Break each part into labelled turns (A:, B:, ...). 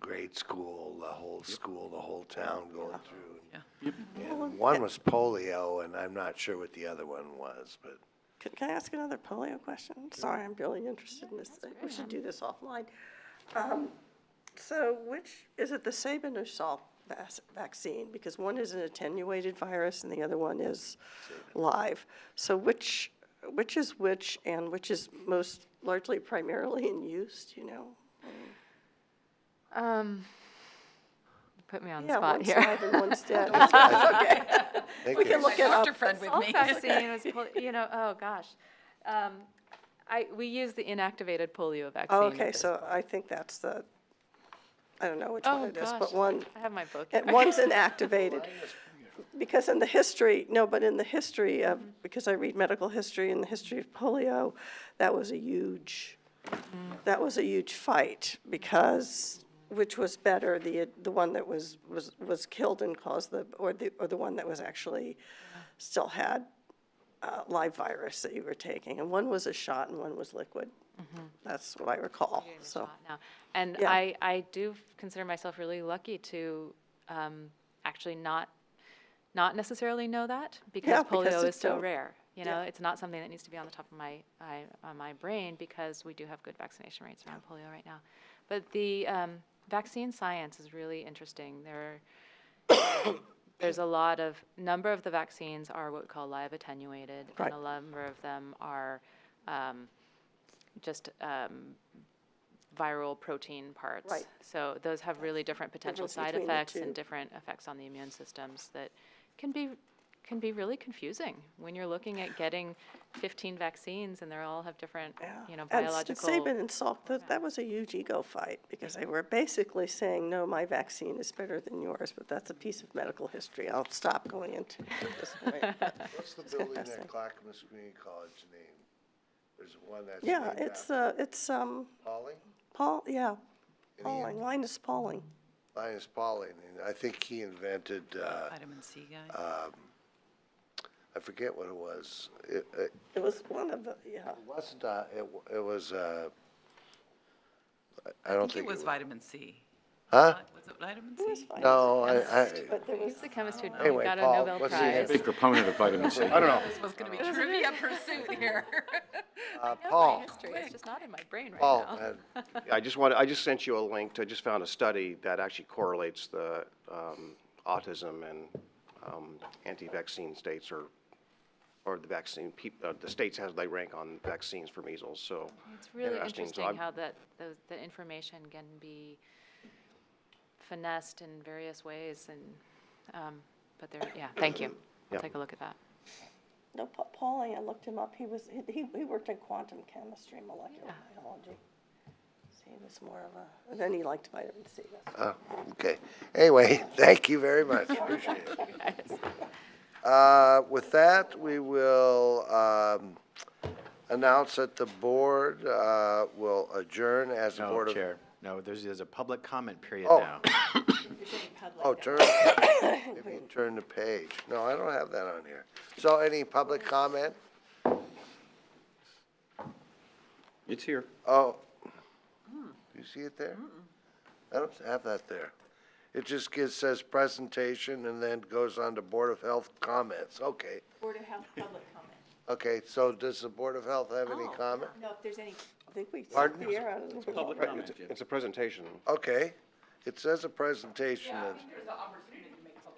A: grade school, the whole school, the whole town going through.
B: Yep.
A: And one was polio, and I'm not sure what the other one was, but
C: Can, can I ask another polio question? Sorry, I'm really interested in this. We should do this offline. Um, So which, is it the Sabinusal vac- vaccine? Because one is an attenuated virus and the other one is live. So which, which is which and which is most largely primarily in use, do you know?
D: Um, you put me on the
C: Yeah,
D: spot
C: one's live and
D: here.
C: one's dead. It's- it's okay.
A: I think
C: We can
A: it's-
C: look it up.
E: friend with
D: All vaccine was, pol- you know, oh gosh. Um, I, we use the inactivated polio vaccine.
C: Oh,
D: at
C: Okay,
D: this-
C: so I think that's the, I don't know which
D: Oh,
C: one it is,
D: gosh,
C: but one,
D: I have my book.
C: And
D: here.
C: one's inactivated. Because in the history, no, but in the history of, because I read medical history and the history of polio, that was a huge, that was a huge fight because, which was better, the, the one that was, was, was killed and caused the, or the, or the one that was actually, still had uh, live virus that you were taking. And one was a shot and one was liquid. That's what I recall,
D: Give Mm-hmm. it a
C: so.
D: shot now. And
C: Yeah.
D: I, I do f- consider myself really lucky to um, actually not, not necessarily know that
C: Yeah,
D: because
C: because
D: polio is
C: it's
D: so
C: so-
D: rare. You
C: Yeah.
D: know, it's not something that needs to be on the top of my, I- on my brain because we do have good vaccination rates around polio right now. But the um, vaccine science is really interesting. There are there's a lot of number of the vaccines are what we call live attenuated,
C: Right.
D: and a number of them are um, just um, viral protein parts.
C: Right.
D: So those have really different potential
C: difference
D: side
C: between the
D: effects
C: two.
D: and different effects on the immune systems that can be can be really confusing when you're looking at getting 15 vaccines and they all have different
C: Yeah.
D: you know
C: And S-
D: biological
C: Saban and Salk, that, that was a huge ego fight, because they were basically saying, no, my vaccine is better than yours, but that's a piece of medical history. I'll stop going into it at this point. but-
A: What's the building
C: Disgusting.
A: at Clackamas Community College name? There's one that's
C: Yeah,
A: named
C: it's,
A: after
C: uh, it's, um,
A: Pauling?
C: Paul, yeah,
A: And he-
C: Pauling, Linus Pauling.
A: Linus Pauling, and I think he invented, uh,
B: Vitamin C guy.
A: I forget what it was. It, it
C: It was one of the, yeah.
A: wasn't, uh, it, w- it was, uh, I- I don't
B: think it was vitamin C.
A: Huh?
B: Was it vitamin
C: It was
B: C?
C: fine,
A: No, I, I,
C: But there was,
D: He's the chemist who
A: Anyway,
D: got a
A: Paul,
D: Nobel
A: what's the
D: Prize.
A: name?
F: Big proponent of vitamin C. I don't know.
B: This was gonna be trivia pursuit here.
A: uh,
D: I know my
A: Paul,
D: history, It's just not in my brain right
A: Paul,
D: now.
A: had-
G: I just wanted, I just sent you a link, to- I just found a study that actually correlates the um, autism and um, anti-vaccine states or, or the vaccine, peop- uh, the states as they rank on vaccines for measles, so.
D: It's really
G: interesting. So
D: interesting
G: I'm-
D: how that, those- the information can be finessed in various ways and, um, but there, yeah, thank you. I'll
G: Yeah.
D: take a look at that.
C: no, Pa- Pauling, I looked him up, he was, he- he, he worked in quantum chemistry, molecular biology. So he was more of a, and then he liked vitamin C, that's
A: oh, okay. Anyway, thank you very much, appreciate it. Uh, With that, we will um, announce that the board uh, will adjourn as the
H: No,
A: Board of.
H: Chair, no, there's, there's a public comment period
A: Oh.
H: now.
A: Oh, turn, if you turn the page. No, I don't have that on here. So any public comment?
F: It's here.
A: Oh,
I: Hmm.
A: do you see it there? I don't have that there. It just gives, says presentation and then goes on to Board of Health comments. Okay.
I: Board of Health public comment. Oh,
A: Okay, so does the Board of Health have any comment?
I: No, if there's any
C: I think we took
A: Pardon?
C: the air out of the world.
G: It's- It's a presentation.
A: Okay, it says a presentation. and-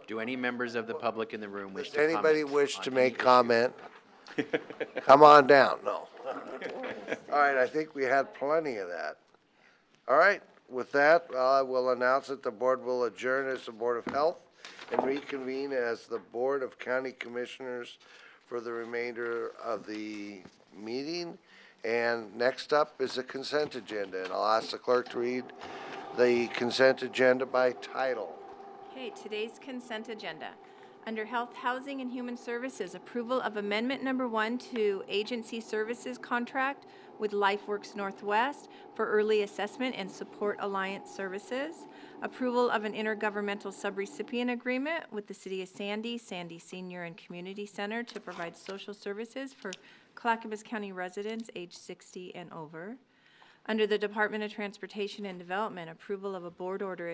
H: Do any members of the public in the room wish
A: Does
H: to comment?
A: anybody wish to
H: on
A: make
H: any-
A: comment? Come on down, no. All right, I think we had plenty of that. All right, with that, I will announce that the board will adjourn as the Board of Health and reconvene as the Board of County Commissioners for the remainder of the meeting. And next up is the consent agenda, and I'll ask the clerk to read the consent agenda by title.
I: Okay, today's consent agenda. Under Health, Housing, and Human Services, approval of Amendment Number One to Agency Services Contract with LifeWorks Northwest for Early Assessment and Support Alliance Services. Approval of an intergovernmental subrecipient agreement with the City of Sandy, Sandy Senior and Community Center to provide social services for Clackamas County residents age 60 and over. Under the Department of Transportation and Development, approval of a board order